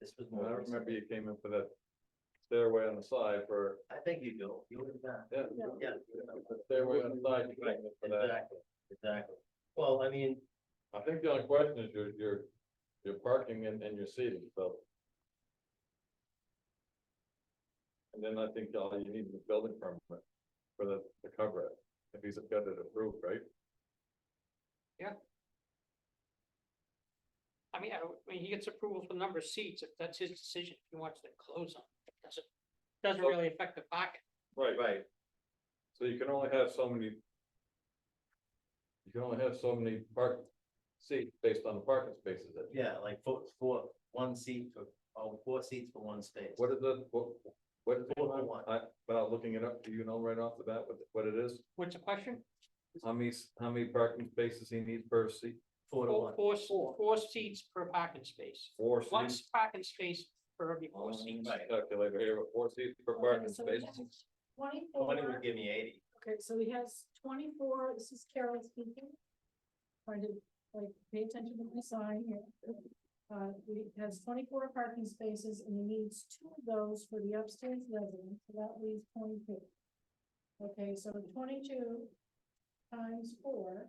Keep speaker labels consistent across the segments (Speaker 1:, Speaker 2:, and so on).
Speaker 1: This was
Speaker 2: I
Speaker 1: more. recent.
Speaker 2: remember you came in for that stairway on the side for,
Speaker 1: I think you do, you would have done.
Speaker 2: yeah.
Speaker 1: Yeah.
Speaker 2: The stairway on the side, you
Speaker 1: Right,
Speaker 2: came in for that.
Speaker 1: exactly, exactly. Well, I mean,
Speaker 2: I think the only question is your, your, your parking and, and your seating, so. And then I think all you need is a building permit for the, to cover it, if he's got it approved, right?
Speaker 3: I mean, I, I mean, he gets approval for the number of seats, if that's his decision, if he wants to close them, It doesn't, doesn't really affect the pocket.
Speaker 2: Right.
Speaker 1: right,
Speaker 2: So you can only have so many. You can only have so many park seats based on the parking spaces that.
Speaker 1: yeah, like four, four, one seat for, oh, four seats for one space.
Speaker 2: What is the, what, what?
Speaker 1: Four to one.
Speaker 2: I, without looking it up, do you know right off the bat what, what it is?
Speaker 3: What's the question?
Speaker 2: How many, s- how many parking spaces he needs per seat?
Speaker 1: Four to
Speaker 3: Four,
Speaker 1: one,
Speaker 3: four, s- four seats per parking space,
Speaker 2: Four
Speaker 3: one
Speaker 2: seats?
Speaker 3: s- parking space for every
Speaker 2: Well,
Speaker 3: four
Speaker 2: let me
Speaker 3: seats.
Speaker 2: just Calculate here, but four seats per
Speaker 4: Okay,
Speaker 2: parking
Speaker 4: Oh, so we
Speaker 2: space.
Speaker 4: have
Speaker 1: twenty would
Speaker 4: Twenty-four,
Speaker 1: give me eighty.
Speaker 4: okay, so he has twenty-four, this is Carol speaking. Trying to, like, pay attention to my sign here. Uh, he has twenty-four parking spaces and he needs two of those for the upstairs residence, so that leaves twenty-two. Okay, so twenty-two times four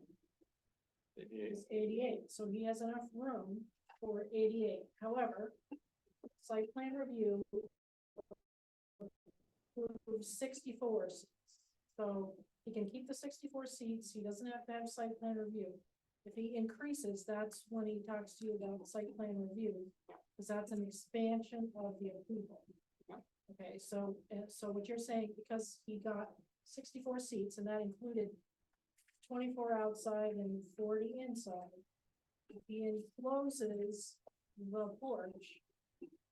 Speaker 4: is eighty-eight, so he has enough room for eighty-eight, however. Site plan review. approves Sixty-four, seats. so he can keep the sixty-four seats, he doesn't have to have site plan review. If he increases, that's when he talks to you about site plan review, because that's an expansion of the approval.
Speaker 3: Yeah.
Speaker 4: Okay, so, and so what you're saying, because he got sixty-four seats and that included twenty-four outside and forty inside. If he encloses the porch,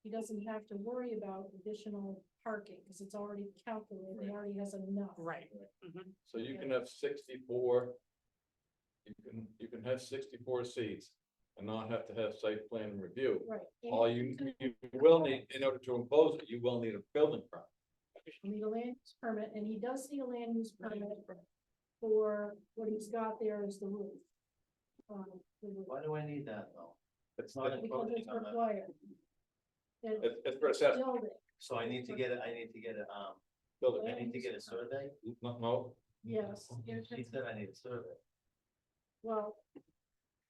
Speaker 4: he doesn't have to worry about additional parking, because it's already calculated, he
Speaker 2: Right.
Speaker 4: already has enough.
Speaker 3: Right. Mhm.
Speaker 2: So you can have sixty-four. You can, you can have sixty-four seats and not have to have site plan review.
Speaker 4: Right. and
Speaker 2: All you, you will need, in order to impose it, you will need a building permit.
Speaker 4: you Need a land use permit, and he does need a land use permit for what he's got there is the roof. Um, the roof,
Speaker 1: Why do I need that though?
Speaker 2: It's
Speaker 1: not
Speaker 2: not,
Speaker 1: a-
Speaker 4: Because it's required. It's
Speaker 2: it's, it's for assessment,
Speaker 4: building,
Speaker 1: So I need to get, a- I need to get a, um,
Speaker 2: building,
Speaker 1: I need to get a survey?
Speaker 2: no, no,
Speaker 4: yes.
Speaker 1: He said I need a survey.
Speaker 4: Well,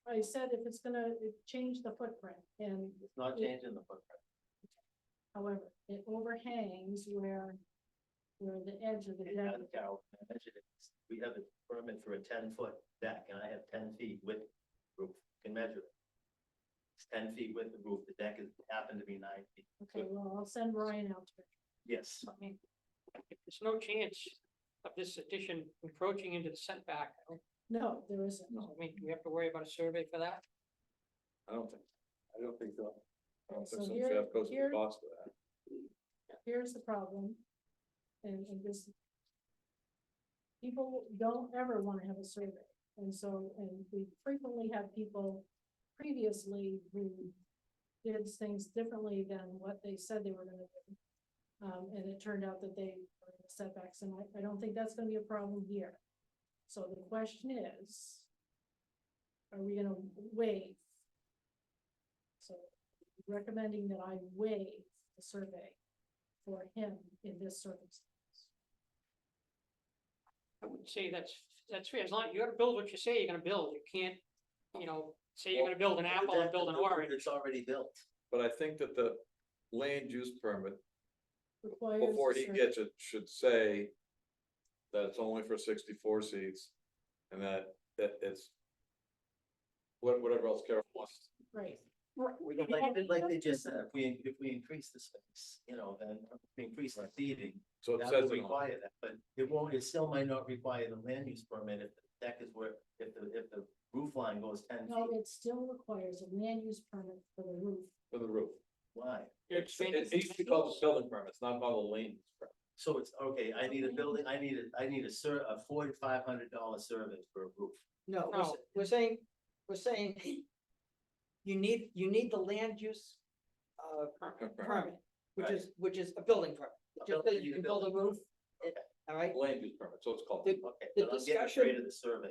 Speaker 4: I said if it's gonna change the footprint and
Speaker 1: It's not changing the footprint.
Speaker 4: however, it overhangs where, where the edge of the
Speaker 1: And
Speaker 4: deck.
Speaker 1: I think I'll mention it. We have a permit for a ten foot deck and I have ten feet with roof, can measure it. It's ten feet with the roof, the deck is, happened to be nine feet.
Speaker 4: Okay, well, I'll send Ryan out to
Speaker 1: Yes,
Speaker 3: I mean, if There's no chance of this addition encroaching into the setback. I don't-
Speaker 4: it. No, there isn't.
Speaker 3: I mean, do we have to worry about a survey for that.
Speaker 2: I don't think, I don't think so. I don't think
Speaker 4: So
Speaker 2: so,
Speaker 4: here-
Speaker 2: Jeff goes to the
Speaker 4: here-
Speaker 2: cost of that.
Speaker 4: Here's the problem. And, and this. People don't ever wanna have a survey. And so, and we frequently have people previously who did things differently than what they said they were gonna do. Um, and it turned out that they were in setbacks, and I, I don't think that's gonna be a problem here. So the question is, are we gonna waive? So recommending that I waive the survey for him in this circumstance.
Speaker 3: I would say that's, that's fair, as long, you gotta build what you say you're gonna build, you can't, you know, say you're gonna build an apple and build an orange.
Speaker 1: It's already built.
Speaker 2: But I think that the land use permit,
Speaker 4: Requires
Speaker 2: before
Speaker 4: the
Speaker 2: he
Speaker 4: survey.
Speaker 2: gets it, should say. That it's only for sixty-four seats and that, that it's. What, whatever else Carol wants.
Speaker 4: Right,
Speaker 3: Right.
Speaker 1: Like, like they just said, if we, if we increase the space, you know, then if we increase the seating,
Speaker 2: So it
Speaker 1: that
Speaker 2: says
Speaker 1: will
Speaker 2: it on,
Speaker 1: require that, but it won't, it still might not require the land use permit if the deck is where, if the, if the roof line goes ten
Speaker 4: no,
Speaker 1: feet
Speaker 4: it still requires a land use permit for the roof.
Speaker 2: for the roof.
Speaker 1: wide.
Speaker 2: It's, it needs to be called a building permit, it's not called a land use permit.
Speaker 1: So it's, okay, I need a building, I need a, I need a ser, a four to five hundred dollar service for a roof.
Speaker 5: No, we're,
Speaker 3: No.
Speaker 5: s- we're saying, we're saying you need, you need the land use uh permit, which
Speaker 1: Right.
Speaker 5: is, which is a building permit.
Speaker 1: A
Speaker 5: It Just
Speaker 1: building,
Speaker 5: that you
Speaker 1: you
Speaker 5: can
Speaker 1: need a
Speaker 5: build a roof,
Speaker 1: Okay.
Speaker 5: all right?
Speaker 2: Land use permit, so it's called.
Speaker 5: The-
Speaker 1: Okay,
Speaker 5: The
Speaker 1: but I'm getting afraid of the survey.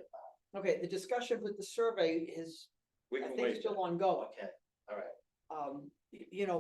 Speaker 5: Okay, the discussion with the survey is,
Speaker 2: We
Speaker 5: I
Speaker 2: can
Speaker 5: think,
Speaker 2: wait.
Speaker 5: still ongoing.
Speaker 1: Okay, all right.
Speaker 5: Um, y- you know,